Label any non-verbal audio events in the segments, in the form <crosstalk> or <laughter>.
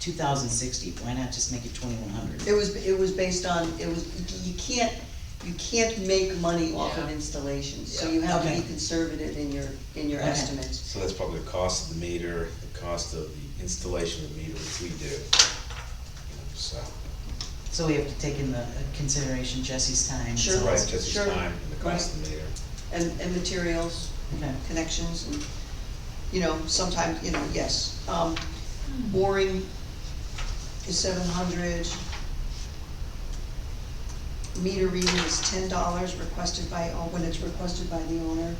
two thousand sixty, why not just make it twenty-one hundred? It was, it was based on, it was, you can't, you can't make money off of Yeah. installations, so Yeah. you have to be Okay. conservative in your, in your Okay. estimates. So that's probably the cost of the meter, the cost of the installation of the meter, which we do. You know, So, So we have to take into consideration Jesse's time. and Sure. so- right, just Sure. the time and the cost of the meter. And, and materials, Okay, connections, and, you know, sometimes, you know, yes. Um, boring is seven hundred. Meter reading is ten dollars requested by, oh, when it's requested by the owner.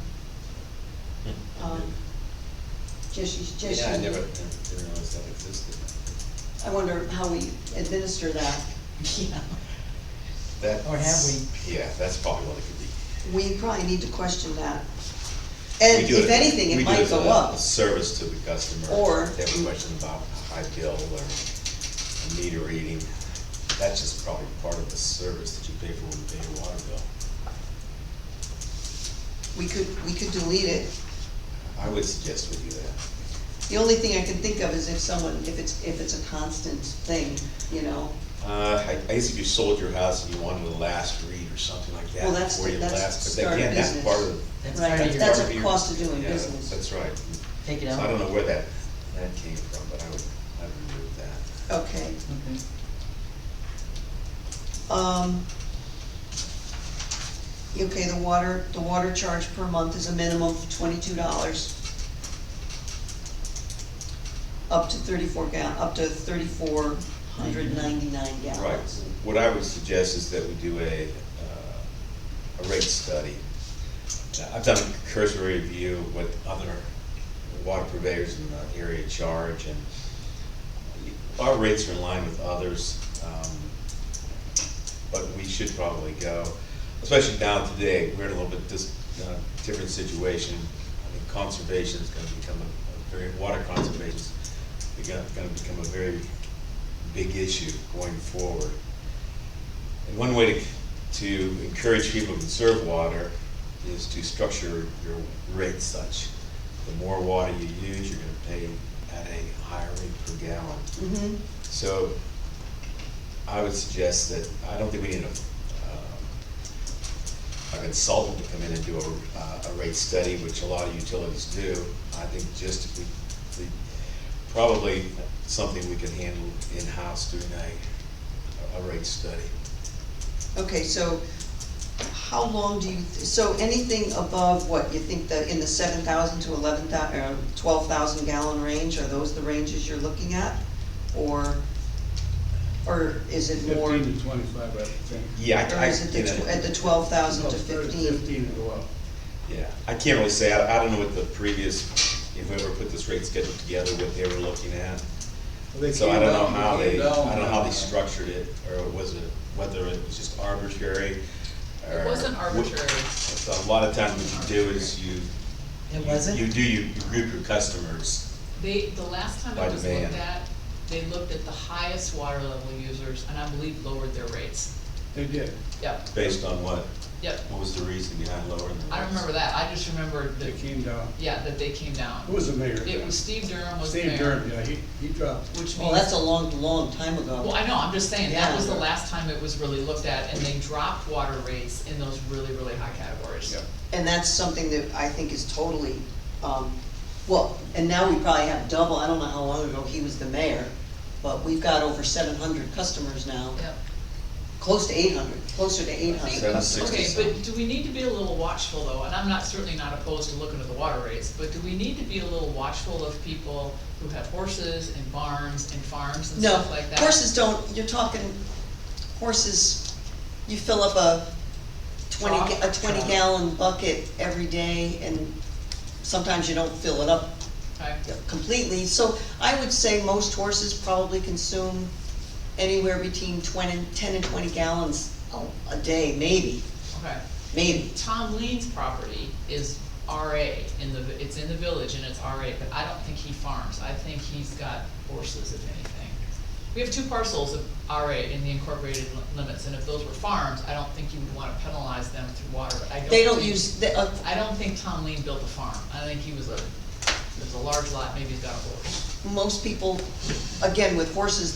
Hmm. Um, Jesse's, Jesse's. Yeah, I never, didn't realize that existed. I wonder how we administer that. <laughs> yeah, That's- Or have we? Yeah, that's probably what it could be. We probably need to question that. And We do if anything, we it do might as go a- up. a Service to the customer. Or- If They have a question about a high bill or a meter reading. That's just probably part of the service that you pay for when you pay your water bill. We could, we could delete it. I would suggest we do that. The only thing I can think of is if someone, if it's, if it's a constant thing, you know? Uh, I, I guess if you sold your house and you wanted a last read or something like that Well, that's, before you that's last, but start of again, that's business. part of. that's Right, part of your- that's part a your- cost of doing yeah, business. That's right. take it So out. I don't know where that, that came from, but I would, I would remove that. Okay, Okay. um. Okay, the water, the water charge per month is a minimum of twenty-two dollars. Up to thirty-four gal, up to thirty-four hundred ninety-nine gallons. Right, what I would suggest is that we do a, uh, a rate study. Now, I've done a cursory review of what other water purveyors in the area charge, and our rates are in line with others, um, but we should probably go, especially now today, we're in a little bit dis, uh, different situation. I think conservation is gonna become a, a very, water conservation's gonna, gonna become a very big issue going forward. And one way to, to encourage people to conserve water is to structure your rate such. The more water you use, you're gonna pay at a higher rate per gallon. Mm-hmm, So I would suggest that, I don't think we need a, um, a consultant to come in and do a, uh, a rate study, which a lot of utilities do. I think just if we, we, probably something we could handle in-house doing a, a rate study. okay, so how long do you, so anything above what, you think that in the seven thousand to eleven thou, or twelve thousand gallon range, are those the ranges you're looking at? Or, or is it more, Fifteen to twenty-five, I would think. Yeah, or I, I, is it you the, tw- know, at the twelve thousand to Well, thirty, fifteen? Fifteen to go up. yeah, I can't really say, I, I don't know what the previous, whoever put this rate schedule together, what they were looking at. Well, they So I came don't up know and how came they, I down. don't know how they structured it, or was it, whether it was just arbitrary, or. It wasn't what- arbitrary. So A lot of times what you do is you. It you- wasn't? You do, you you group your customers. They, the last time By I just looked demand. at, they looked at the highest water level users, and I believe lowered their rates. They did. Yep, Based on what, yep. what was the reason behind lowering the rates? I don't remember that, I just remember They that, came down. yeah, that they came down. Who was the mayor? It was Steve Durham was Steve mayor, Durham, yeah, he, he dropped. which Well, that's means, a long, long time ago. well, I know, I'm just saying, that Yeah. was the last time it was really looked at, and they dropped water rates in those really, really high categories. Yeah. And that's something that I think is totally, um, well, and now we probably have double, I don't know how long ago he was the mayor, but we've got over seven hundred customers now, Yep. close to eight hundred, closer to eight hundred Seven customers. sixty. some. Okay, but do we need to be a little watchful though, and I'm not, certainly not opposed to looking at the water rates, but do we need to be a little watchful of people who have horses and barns and farms and No, stuff like that? horses don't, you're talking, horses, you fill up a twenty, ga- a Trough? twenty gallon bucket every day, and sometimes you don't fill it up Okay, completely, so I would say most horses probably consume anywhere between twenty, ten and twenty gallons a- a day, maybe, okay. maybe. Tom Lean's property is RA in the, it's in the village and it's RA, but I don't think he farms, I think he's got horses if anything. We have two parcels of RA in the incorporated li- limits, and if those were farms, I don't think you would wanna penalize them through water, but I don't They don't think- use, the- uh, I don't think Tom Lean built a farm, I think he was a, it was a large lot, maybe he's got a horse. most people, again, with horses,